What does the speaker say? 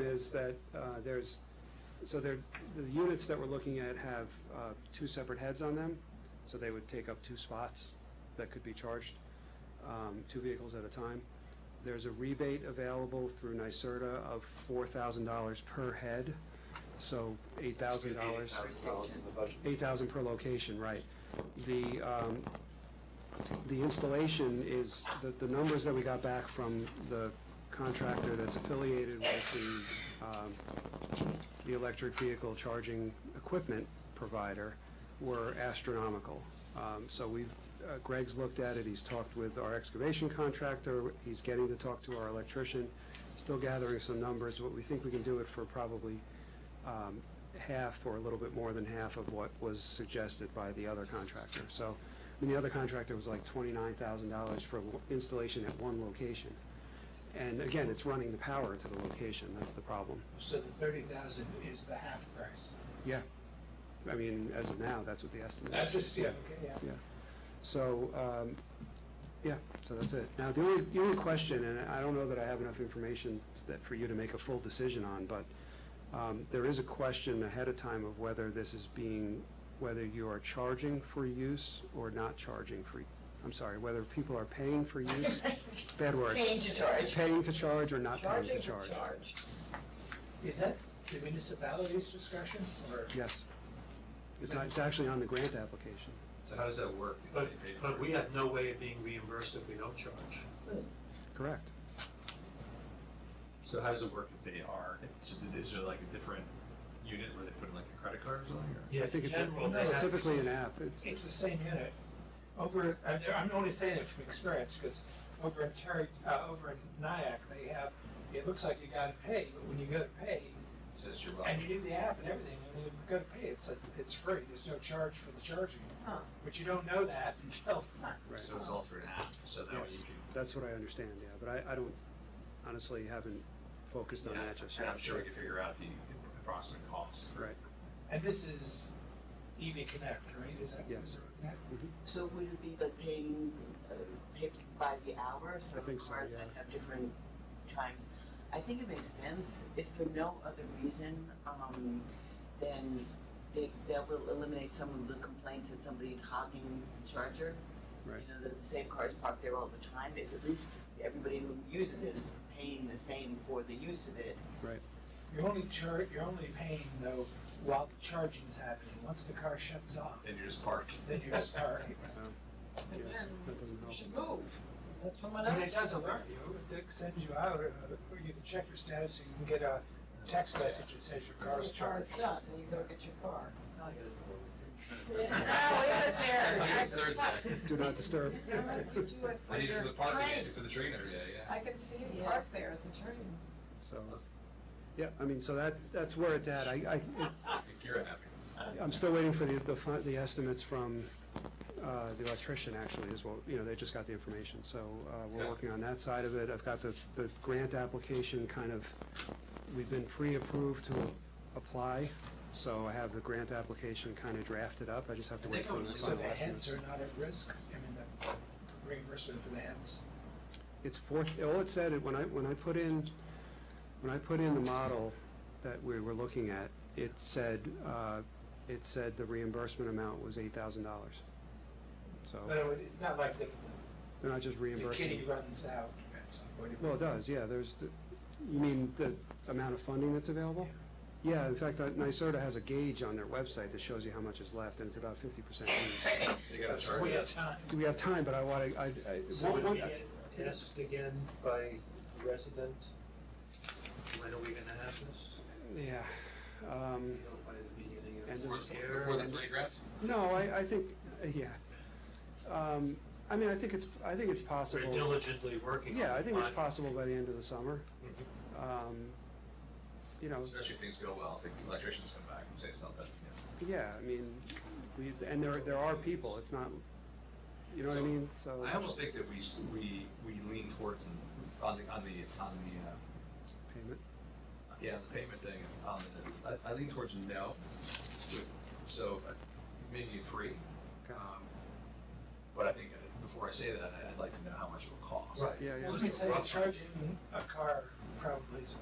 is that uh, there's, so there, the units that we're looking at have uh, two separate heads on them, so they would take up two spots that could be charged, um, two vehicles at a time. There's a rebate available through NYSERDA of $4,000 per head, so $8,000. $8,000 in the budget. Eight thousand per location, right. The, um, the installation is, the, the numbers that we got back from the contractor that's affiliated with the, um, the electric vehicle charging equipment provider were astronomical. Um, so we've, uh, Greg's looked at it, he's talked with our excavation contractor, he's getting to talk to our electrician, still gathering some numbers, but we think we can do it for probably, um, half or a little bit more than half of what was suggested by the other contractor. So, I mean, the other contractor was like twenty-nine thousand dollars for w- installation at one location. And again, it's running the power to the location, that's the problem. So the thirty thousand is the half price. Yeah. I mean, as of now, that's what the estimate is. That's just, yeah, okay, yeah. So, um, yeah, so that's it. Now, the only, the only question, and I don't know that I have enough information that, for you to make a full decision on, but, um, there is a question ahead of time of whether this is being, whether you are charging for use or not charging for, I'm sorry, whether people are paying for use, bad word. Paying to charge. Paying to charge or not paying Charging to to charge. charge. Is that the municipality's discretion or? Yes. It's not, it's actually on the grant application. So how does that work? But, but we have no way of being reimbursed if we don't charge. Correct. So how does it work if they are, so did- is there like a different unit where they put in like a credit card or something? or- I think it's, a- General, they it's have- typically an app. It's, It's the same unit. Over, I'm I'm only saying it from experience because over in Terry, uh, over in Nyack, they have, it looks like you gotta pay, but when you go to pay, It Says you're and welcome. you do the app and everything, and when you go to pay, it says it's free, there's no charge for the charging. Huh. But you don't know that until right. So it's all through an app, so that way you Yes. can. That's what I understand, yeah, but I, I don't, honestly, haven't focused on that just yet. And I'm sure we can figure out the approximate cost. Right, And this is EV Connect, right? Is that? Yes. Yeah. So would it be like paying, uh, pay by the hour, so I think so, cars yeah. that have different times? I think it makes sense, if for no other reason, um, then it, that will eliminate some of the complaints that somebody's hogging the charger. Right. You know, that the same cars parked there all the time, is at least everybody who uses it is paying the same for the use of it. You're only char, you're only paying though while the charging's happening. Once the car shuts off, Then you're just parked. then you're just starting. yes, that doesn't You help. should move, let someone And else. it does alert you, it sends you out, uh, or you can check your status, you can get a text message that says your This car's is charged charged. up, and you go get your car. I Yeah. use Thursday. Do not disturb. You do it for I need it your for the parking, I need train. it for the train every day, yeah. I can see you Yeah. park there at the train. So, yeah, I mean, so that, that's where it's at. I, I think you're happy. I, I'm still waiting for the, the, fi- the estimates from, uh, the electrician actually is what, you know, they just got the information. So, uh, we're Yeah. working on that side of it. I've got the, the grant application kind of, we've been pre-approved to apply. So I have the grant application kind of drafted up. I just have to And they wait for don't the lose So final the estimates. heads are not at risk, I mean, the reimbursement for the heads. It's fourth, all it said, it- when I, when I put in, when I put in the model that we were looking at, it said, uh, it said the reimbursement amount was eight thousand dollars. So, But it would- it's not like the, they're not just the kitty reimbursing. runs out at some point. Well, it does, yeah, there's, the- you mean the amount of funding that's available? Yeah, in fact, uh, NYSERDA has a gauge on their website that shows you how much is left, and it's about fifty percent used. You gotta charge We it. have time. Do we have time, but I wanna, I, I. So one- would it one- be asked again by the resident, when are we gonna have this? Yeah, um, You know, by the beginning End of of this the- year? Before the playground? No, I, I think, yeah. Um, I mean, I think it's, I think it's We're possible. diligently working on it. Yeah, I think it's but- possible by the end of the summer. Mm-hmm. Um, You know, Especially if things go well, if the electricians come back and say it's not that, you know. yeah, I mean, we, and there, there are people, it's not, you know what I So, mean? So, I almost think that we, s- we, we lean towards an- on the, on the, on the, uh, payment, yeah, the payment thing, on the, I, I lean towards no. So uh, maybe a three. Okay. Um, But I think uh, before I say that, I- I'd like to know how much it will cost. yeah, yeah. Let me tell you, charging a car probably is